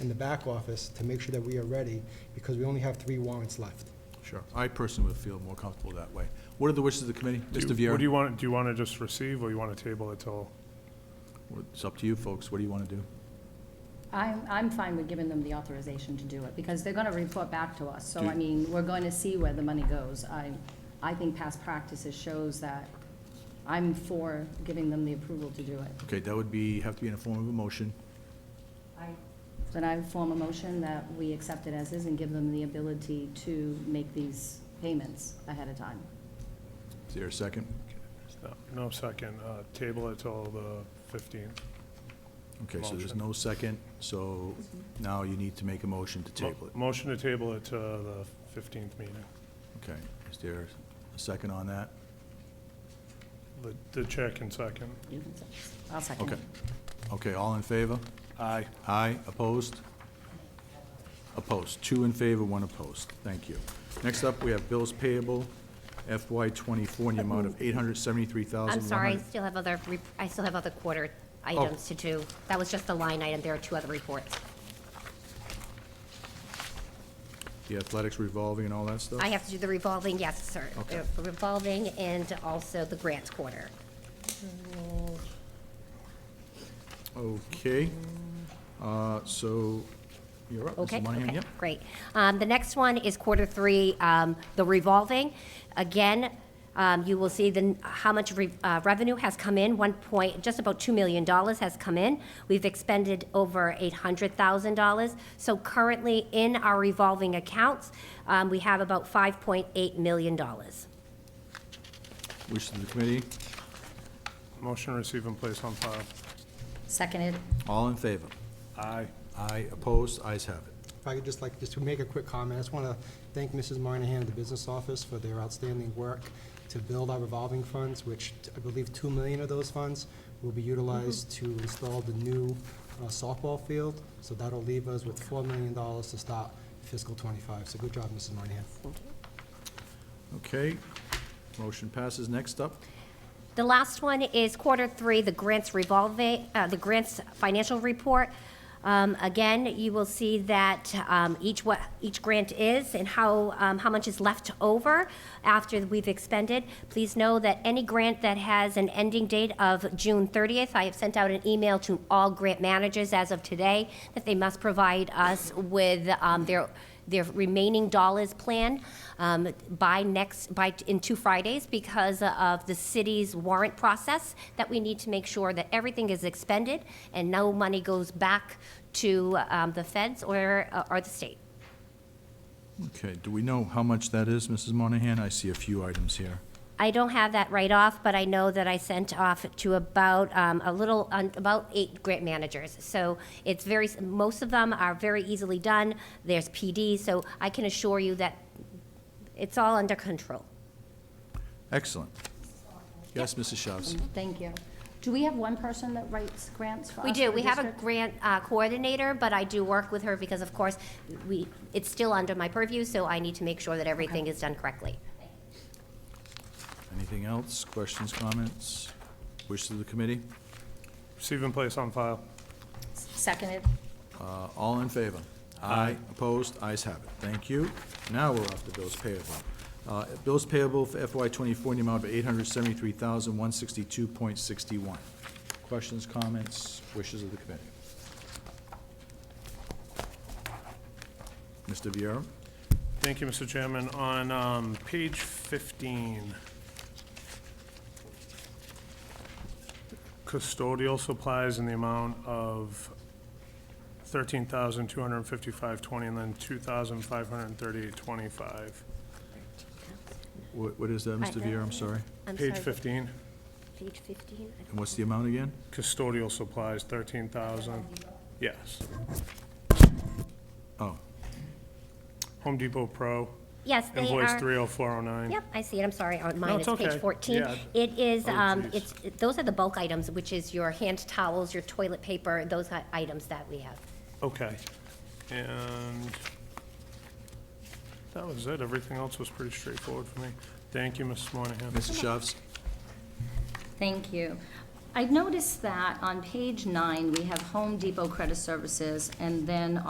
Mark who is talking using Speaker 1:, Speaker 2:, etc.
Speaker 1: in the back office to make sure that we are ready, because we only have three warrants left.
Speaker 2: Sure. I personally would feel more comfortable that way. What are the wishes of the committee? Mr. Viera?
Speaker 3: What do you want, do you want to just receive, or you want to table it till?
Speaker 2: It's up to you, folks. What do you want to do?
Speaker 4: I'm, I'm fine with giving them the authorization to do it, because they're gonna report back to us, so I
Speaker 2: Do-
Speaker 4: mean, we're going to see where the money goes. I, I think past practices shows that I'm for giving them the approval to do it.
Speaker 2: Okay, that would be, have to be in a form of a motion.
Speaker 4: Then I form a motion that we accept it as is and give them the ability to make these payments ahead of time.
Speaker 2: Is there a second?
Speaker 3: no, No, second, uh, table it till the 15th.
Speaker 2: Okay, so there's no second, so now you need to make a motion to table it.
Speaker 3: Motion to table it to the 15th meeting.
Speaker 2: Okay, is there a second on that?
Speaker 3: The- The chair can second.
Speaker 4: You can second. I'll second
Speaker 2: Okay.
Speaker 4: it.
Speaker 2: Okay, all in favor?
Speaker 3: Aye.
Speaker 2: Aye, opposed? Opposed. Two in favor, one opposed. Thank you. Next up, we have bills payable FY twenty-four in the amount of eight hundred seventy-three thousand. Oh.
Speaker 5: I'm sorry, I still have other, rep- I still have other quarter items to do. That was just the line item, there are two other reports.
Speaker 2: The athletics revolving and all that stuff?
Speaker 5: I have to do the revolving, yes, sir.
Speaker 2: Okay.
Speaker 5: The Revolving and also the grants quarter.
Speaker 2: Okay, uh, so, you're up,
Speaker 5: Okay,
Speaker 2: Mrs. Monahan,
Speaker 5: okay,
Speaker 2: yep.
Speaker 5: great. Um, The next one is quarter three, um, the revolving. Again, um, you will see the, how much re- uh, revenue has come in, one point, just about $2 million has come in. We've expended over $800,000. So currently, in our revolving accounts, um, we have about $5.8 million.
Speaker 2: Wish of the committee,
Speaker 3: Motion to receive and place on file.
Speaker 4: Seconded,
Speaker 2: all in favor?
Speaker 3: Aye.
Speaker 2: Aye, opposed, ayes have it.
Speaker 1: If I could just like, just to make a quick comment, I just want to thank Mrs. Moynihan, the business office, for their outstanding work to build our revolving funds, which I believe two million of those funds will be utilized to install the new uh, softball field. So that'll leave us with four million dollars to start fiscal twenty-five. So good job, Mrs. Moynihan.
Speaker 2: Okay, motion passes. Next up,
Speaker 5: The last one is quarter three, the grants revolving, uh, the grants financial report. Um, again, you will see that, um, each what, each grant is and how, um, how much is left over after we've expended. Please know that any grant that has an ending date of June thirtieth, I have sent out an email to all grant managers as of today that they must provide us with, um, their, their remaining dollars plan um, by next, by, in two Fridays because of the city's warrant process, that we need to make sure that everything is expended and no money goes back to um, the feds or, uh, or the state.
Speaker 2: okay, do we know how much that is, Mrs. Monahan? I see a few items here.
Speaker 5: I don't have that right off, but I know that I sent off to about, um, a little, un- about eight grant managers. So it's very, s- most of them are very easily done. There's PD, so I can assure you that it's all under control.
Speaker 2: Excellent. Yes, Mrs. Shavs?
Speaker 4: thank you. Do we have one person that writes grants for us?
Speaker 5: We do,
Speaker 4: for
Speaker 5: we have a
Speaker 4: district?
Speaker 5: grant uh, coordinator, but I do work with her because, of course, we, it's still under my purview, so I need to make sure that everything is done correctly.
Speaker 2: Anything else? Questions, comments? Wish of the committee?
Speaker 3: Receive and place on file.
Speaker 4: Seconded,
Speaker 2: Uh, All in favor? Aye. Opposed? Ayes have it. Thank you. Now we're off to bills payable. Uh, Bills payable for FY twenty-four in the amount of eight hundred seventy-three thousand, one sixty-two point sixty-one. Questions, comments, wishes of the committee? Mr. Viera?
Speaker 3: Thank you, Mr. Chairman. On um, page 15, custodial supplies in the amount of 13255 dollars and then 2538 25
Speaker 2: What, what is that, Mr. Viera? I'm sorry.
Speaker 5: I'm
Speaker 3: Page
Speaker 5: sorry,
Speaker 3: 15,
Speaker 5: Page fifteen? I don't-
Speaker 2: And what's the amount again?
Speaker 3: custodial supplies, 13,000. Yes.
Speaker 2: Oh,
Speaker 3: Home Depot Pro,
Speaker 5: Yes, they
Speaker 3: invoice
Speaker 5: are.
Speaker 3: 30409.
Speaker 5: Yep, I see it, I'm sorry, on mine,
Speaker 3: it's
Speaker 5: it's page
Speaker 3: okay.
Speaker 5: 14.
Speaker 3: Yeah.
Speaker 5: It is,
Speaker 3: Oh,
Speaker 5: um,
Speaker 3: geez.
Speaker 5: it's, it- those are the bulk items, which is your hand towels, your toilet paper, those i- items that we have.
Speaker 3: Okay, and that was it. Everything else was pretty straightforward for me. Thank you, Mrs. Monahan.
Speaker 2: Mrs. Shavs?
Speaker 4: thank you. I noticed that on page nine, we have Home Depot Credit Services, and then